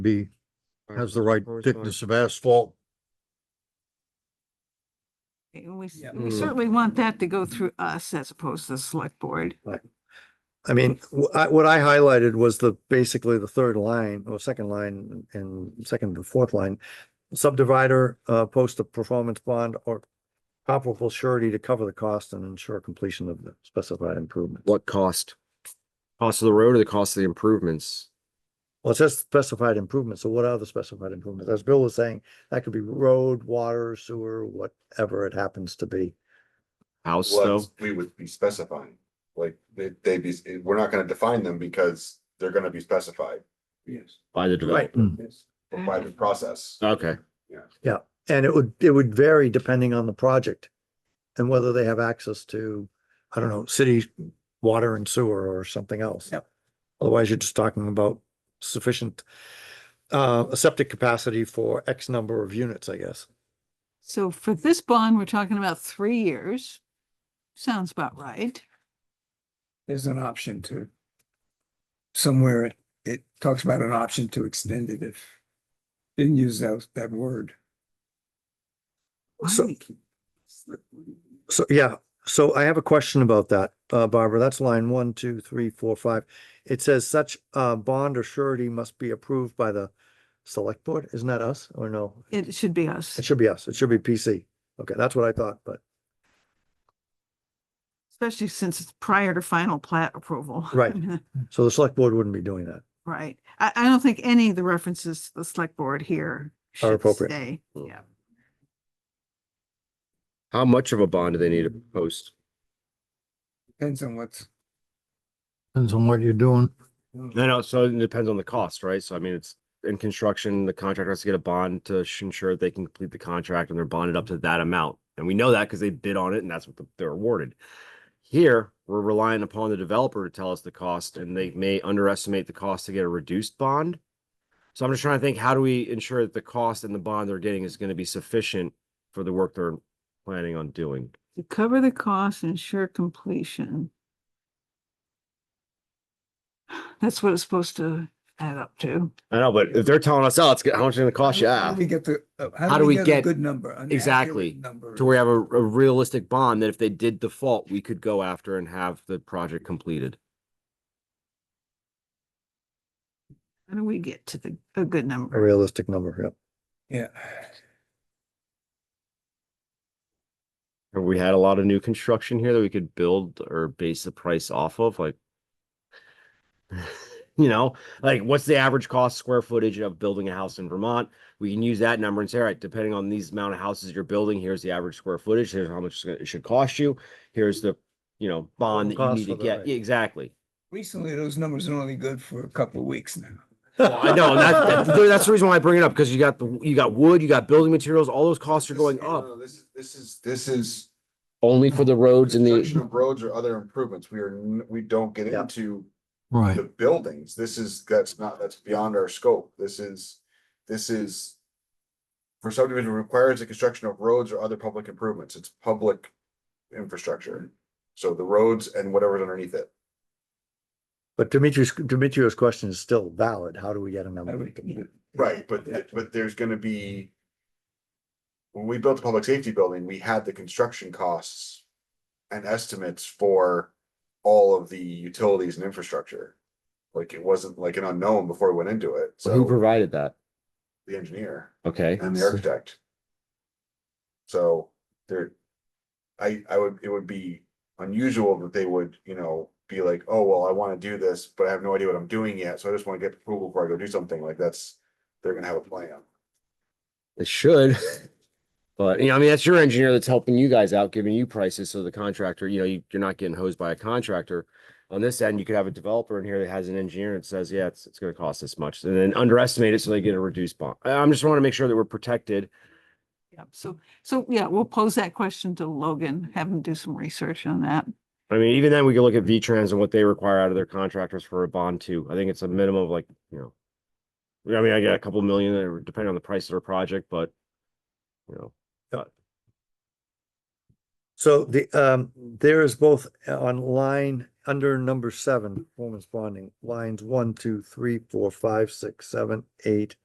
be, has the right thickness of asphalt. We, s- Yeah. we Mm. certainly want that to go through us as opposed to the select board. I mean, wh- I- what I highlighted was the, basically the third line or second line and second and fourth line. Subdivider, uh, post a performance bond or comparable surety to cover the cost and ensure completion of the specified improvement. What cost? Cost of the road or the cost of the improvements? Well, it says specified improvements, so what are the specified improvements? As Bill was saying, that could be road, water, sewer, whatever it happens to be. House though? what we would be specifying. Like, they, they be, we're not gonna define them because they're gonna be specified. Yes. By the Right. developer. By the process. Okay, And it would, it would vary depending on the project and whether they have access to, I don't know, city water and sewer or something else. Yep. Otherwise, you're just talking about sufficient, uh, a septic capacity for X number of units, I guess. So for this bond, we're talking about three years. Sounds about right. There's an option to. Somewhere it, it talks about an option to extend it if. Didn't use that, that word. Why So- we- So, yeah, so I have a question about that, uh, Barbara, that's line one, two, three, four, five. It says such, uh, bond or surety must be approved by the select board, isn't that us or no? It should be us. It should be us, it should be PC. Okay, that's what I thought, but. Especially since it's prior to final plat approval. Right. So the select board wouldn't be doing that. Right. I, I don't think any of the references to the select board Are here should appropriate. stay. Mm. Yeah. how much of a bond do they need to post? Depends on what's. Depends on what you're doing. No, no, so it depends on the cost, right? So I mean, it's in construction, the contractor has to get a bond to sh- ensure they can complete the contract and they're bonded up to that amount. And we know that because they bid on it and that's what the- they're awarded. Here, we're relying upon the developer to tell us the cost and they may underestimate the cost to get a reduced bond. So I'm just trying to think, how do we ensure that the cost and the bond they're getting is going to be sufficient for the work they're planning on doing? To cover the cost and ensure completion. That's what it's supposed to add up to. I know, but if they're telling us, oh, it's g- how much it's going to cost you, How ah, do We get the. uh, How do we a get- Good number. an accurate exactly, Number. to where we have a, a realistic bond that if they did default, we could go after and have the project completed. How do we get to the, a good A number? realistic number, yeah. Yeah. Have we had a lot of new construction here that we could build or base the price off of, like? You know, like what's the average cost square footage of building a house in Vermont? We can use that number and say, all right, depending on these amount of houses you're building, here's the average square footage, here's how much it's gonna- it should cost you. Here's the, you know, bond that you Cost need to for the- get, Yeah, exactly. Recently, those numbers are only good for a couple of weeks now. Well, I know, and that's, that's- that's the reason why I bring it up, because you got the, you got wood, you got building materials, all those costs are This- going no, up. no, This is, this is, this is. Only for the roads and construction the, of Roads or other improvements. We are, n- we don't get Yeah. into Right. the buildings. This is, that's not, that's beyond our scope. This is, this is. For subdivision requires the construction of roads or other public improvements. It's public infrastructure. So the roads and whatever's underneath it. But Dimitri's, Dimitri's question is still valid. How do we get a I number? would- yeah. Right, but, th- but there's gonna be. When we built the public safety building, we had the construction costs. And estimates for all of the utilities and infrastructure. Like it wasn't like an unknown before we went into it, who so provided that? the engineer Okay, and the architect. So there. I, I would, it would be unusual that they would, you know, be like, oh, well, I wanna do this, but I have no idea what I'm doing yet, so I just wanna get approval before I go do something like that's. They're gonna have a plan. it should. But, you know, I mean, that's your engineer that's helping you guys out, giving you prices, so the contractor, you know, you, you're not getting hosed by a contractor. On this end, you could have a developer in here that has an engineer that says, yeah, it's, it's gonna cost this much, and then underestimate it so they get a reduced bond. I- I'm just wanna make sure that we're protected. Yep. So, so yeah, we'll pose that question to Logan, have him do some research on that. I mean, even then, we could look at V-Trans and what they require out of their contractors for a bond too. I think it's a minimum of like, you know. yeah, I mean, I got a couple million, uh, depending on the price of their project, but. You know, So the, um, there is both on line under number seven, performance bonding, lines one, two, three, four, five, six, seven, eight,